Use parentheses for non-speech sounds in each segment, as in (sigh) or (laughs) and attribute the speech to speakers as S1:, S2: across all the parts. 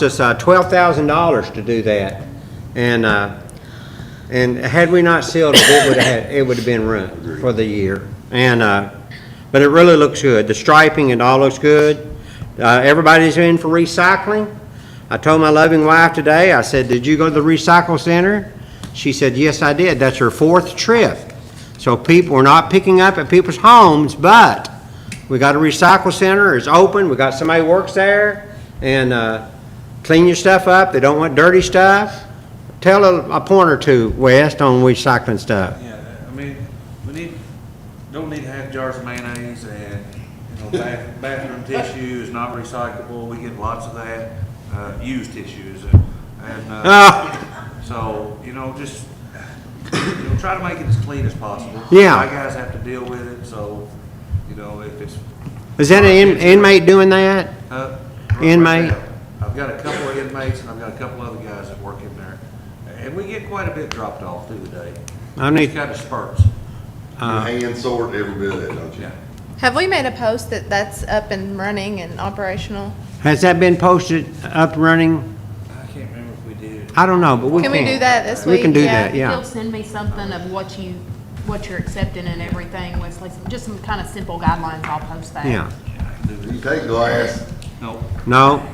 S1: cost us uh, $12,000 to do that. And, uh, and had we not sealed it, it would have, it would have been ruined for the year. And, uh, but it really looks good. The striping and all looks good. Uh, Everybody's in for recycling. I told my loving wife today, I said, "Did you go to the recycle center?" She said, "Yes, I did." That's her fourth trip. So people are not picking up at people's homes, but we got a recycle center, it's open, we got somebody works there, and, uh, clean your stuff up, they don't want dirty stuff. Tell a, a point or two, West, on recycling
S2: (laughs)
S1: stuff.
S2: Yeah, I mean, we need, don't need to have jars of mayonnaise and, you
S1: (laughs)
S2: know, bath- bathroom tissue is not recyclable, we get lots of that, uh, used tissues and, and, uh,
S1: Ah,
S2: so, you know, just, you know, try to make it as clean as possible.
S1: Yeah.
S2: My guys have to deal with it, so, you know, if it's,
S1: is that an in- inmate doing that?
S2: uh.
S1: Inmate.
S2: I've got a couple of inmates and I've got a couple other guys that work in there, and we get quite a bit dropped off through the day.
S1: I need-
S2: It's Kind of spurts,
S3: You hand sort every bit of that, don't you?
S2: yeah.
S4: Have we made a post that that's up and running and operational?
S1: Has that been posted, up and running?
S2: I can't remember if we did.
S1: I don't know, but we
S4: Can
S1: can.
S4: we do that this
S1: We can
S4: week?
S1: do
S4: Yeah.
S1: that, yeah.
S5: He'll send me something of what you, what you're accepting and everything, Wesley, just some kind of simple guidelines, I'll post that.
S1: Yeah,
S2: Yeah, I can do
S3: Do you
S2: this.
S3: take glass?
S2: No,
S1: no?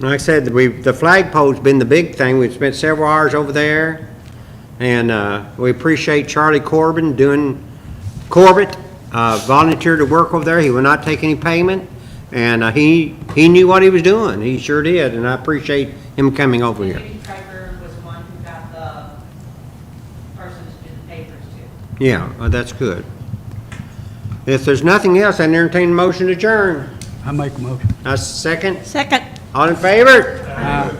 S1: Like I said, we, the flagpole's been the big thing, we've spent several hours over there, and, uh, we appreciate Charlie Corbin doing, Corbett, uh, volunteered to work over there, he will not take any payment, and, uh, he, he knew what he was doing, he sure did, and I appreciate him coming over here.
S6: Jimmy Craver was the one who got the person to do the papers to.
S1: Yeah, uh, that's good. If there's nothing else, I entertain a motion to adjourn.
S7: I make a motion.
S1: A second? Second. All in favor?